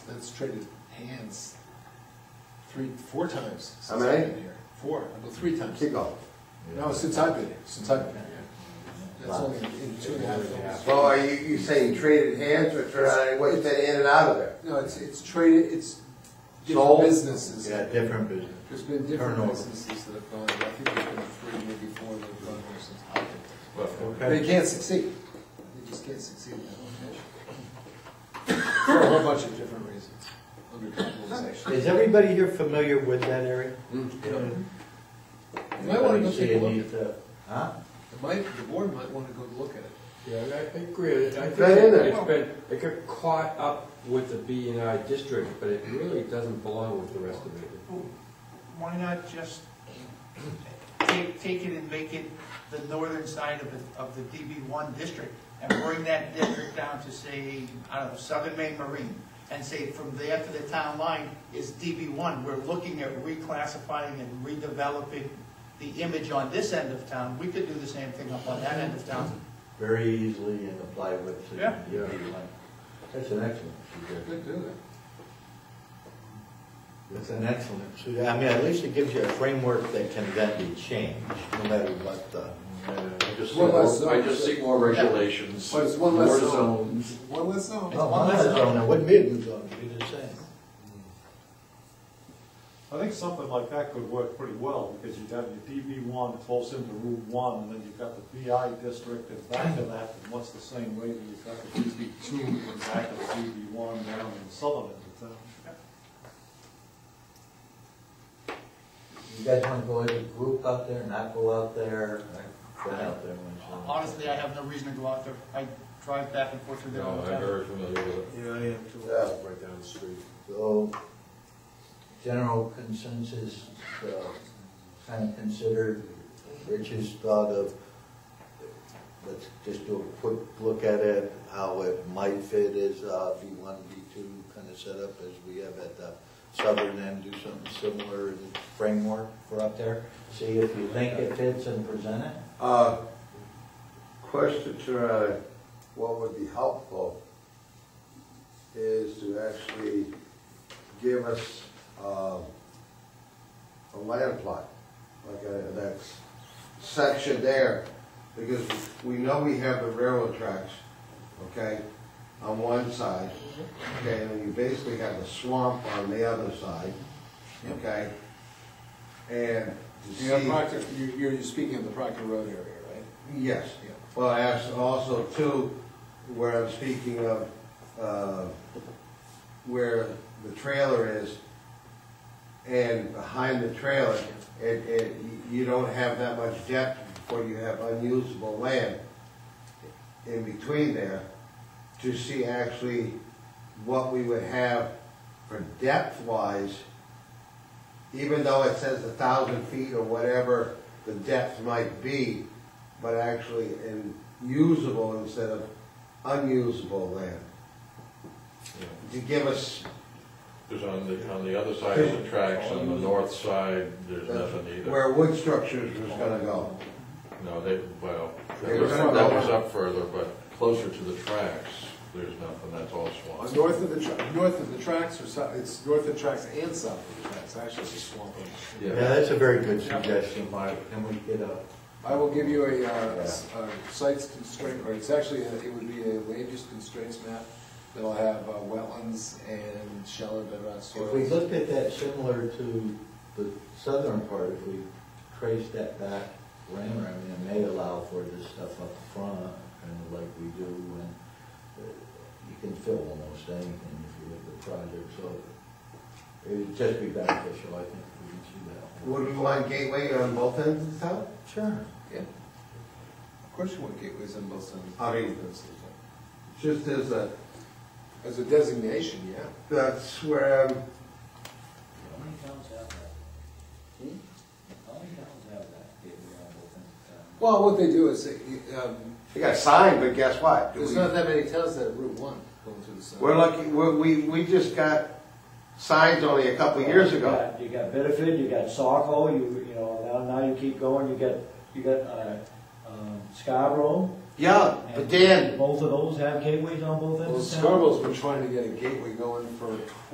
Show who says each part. Speaker 1: it's traded hands three, four times
Speaker 2: How
Speaker 1: since I've
Speaker 2: many?
Speaker 1: been here. Four, I go three times.
Speaker 2: Keep going.
Speaker 1: No, since I've been here, since I've been here. That's only in two and a half years.
Speaker 2: So are you, you saying traded hands or turn out, what you said in and out of there?
Speaker 1: No, it's, it's traded, it's different
Speaker 2: Sold?
Speaker 1: businesses.
Speaker 3: Yeah, different business.
Speaker 1: There's been different
Speaker 3: Turnover.
Speaker 1: businesses that have gone, I think there's been three, maybe four that have gone there since I've been. They
Speaker 3: Okay.
Speaker 1: can't succeed. They just can't succeed in that location. For a whole bunch of different reasons, undercapitalization.
Speaker 3: Is everybody here familiar with that area?
Speaker 1: You might wanna go
Speaker 3: Anybody see
Speaker 1: take a
Speaker 3: a
Speaker 1: look.
Speaker 3: need to- Huh?
Speaker 1: It might, the board might want to go look at it.
Speaker 4: Yeah, I I agree. I think
Speaker 2: Right in there.
Speaker 4: it's been, it got caught up with the B and I district, but it really doesn't belong with the rest of it.
Speaker 5: Why not just take, take it and make it the northern side of the, of the DB one district and bring that district down to say, I don't know, Southern Maine Marine? And say from there to the town line is DB one. We're looking at reclassifying and redeveloping the image on this end of town. We could do the same thing up on that end of town.
Speaker 3: Very easily and apply with. the-
Speaker 5: Yeah.
Speaker 3: the other one. That's an excellent suggestion.
Speaker 1: Good, do
Speaker 3: That's an excellent suggestion. I mean, at least it gives you a framework that can then be changed, no matter what the.
Speaker 6: I just see
Speaker 1: One less
Speaker 6: more- I
Speaker 1: zone.
Speaker 6: just see more regulations,
Speaker 1: But
Speaker 6: more
Speaker 1: it's one less zone.
Speaker 6: zones.
Speaker 1: One less zone.
Speaker 3: Well, Oh, one less zone, it wouldn't be a new zone, it'd be the same.
Speaker 7: I think something like that could work pretty well, because you've got your DB one close into Route one, and then you've got the BI district and back to that, and what's the same way that you've got the DB two and back to the DB one down in the southern end of town.
Speaker 3: You guys wanna go as a group out there, not go out there? I've Been out there once.
Speaker 5: Honestly, I have no reason to go out there. I drive back and forth through there all the time.
Speaker 6: familiar with it.
Speaker 1: Yeah, I am too.
Speaker 3: Yeah.
Speaker 1: Right down the street.
Speaker 3: So, general consensus, uh, kind of consider Rich's thought of, let's just do a quick look at it, how it might fit as uh, B1, B2 kind of setup as we have at the southern end, do something similar as a framework for up there, see if you think it fits and present it.
Speaker 2: Uh, Question to, uh, what would be helpful is to actually give us um, a land plot, like a, that section there, because we know we have the railroad tracks, okay, on one side, okay, and then you basically have the swamp on the other side, okay? And to see.
Speaker 1: You have Proctor, you- you're, you're speaking of the Proctor Road area, right?
Speaker 2: Yes.
Speaker 1: Yeah.
Speaker 2: Well, I asked also too, where I'm speaking of, uh, where the trailer is, and behind the trailer, it, it, you don't have that much depth before you have unusable land in between there to see actually what we would have for depth-wise, even though it says a thousand feet or whatever the depth might be, but actually in usable instead of unusable land. To give us,
Speaker 6: Because on the, on the other side of the tracks, on the north side, there's nothing either.
Speaker 2: where wood structures was gonna go.
Speaker 6: No, they, well,
Speaker 2: They
Speaker 6: that
Speaker 2: were
Speaker 6: was
Speaker 2: gonna
Speaker 6: that
Speaker 2: go
Speaker 6: was
Speaker 2: up.
Speaker 6: up further, but closer to the tracks, there's nothing, that's all
Speaker 1: Uh,
Speaker 6: swamp.
Speaker 1: North of the, tra- north of the tracks or south, it's north of the tracks and south of the tracks, actually it's a swamp. on the street.
Speaker 3: Yeah, that's a very good suggestion, Mark, and we get a,
Speaker 1: I will give you a, uh, s- a sites constraint, or it's actually, a- it would be a land use constraints map that'll have uh, wetlands and shallow bedrock
Speaker 3: If we
Speaker 1: soils.
Speaker 3: looked at that similar to the southern part, if we traced that back, Ram, I mean, it may allow for this stuff up front, kind of like we do, and uh, you can fill almost anything if you look at the project, so it would just be beneficial, I think, if we can see that.
Speaker 2: Would we want gateway on both ends of town?
Speaker 3: Sure.
Speaker 1: Yeah. Of course you want gateways on both sides.
Speaker 2: I mean- Just as a,
Speaker 1: As a designation, yeah.
Speaker 2: that's where, um,
Speaker 8: How many towns have that? Hmm? How many towns have that? Yeah, we all both in town.
Speaker 1: Well, what they do is, they, um,
Speaker 2: they got signed, but guess what?
Speaker 1: there's not that many towns that have Route One going through the center.
Speaker 2: We're lucky, we're- we, we just got signs only a couple years
Speaker 8: You
Speaker 2: ago.
Speaker 8: got- You got Bitterford, you got Saco, you, you know, now, now you keep going, you got, you got, uh, um, Scarborough.
Speaker 2: Yeah, but
Speaker 8: and
Speaker 2: Dan,
Speaker 8: Both of those have gateways on both ends
Speaker 1: Well,
Speaker 8: of town.
Speaker 1: Scarborough's been trying to get a gateway going for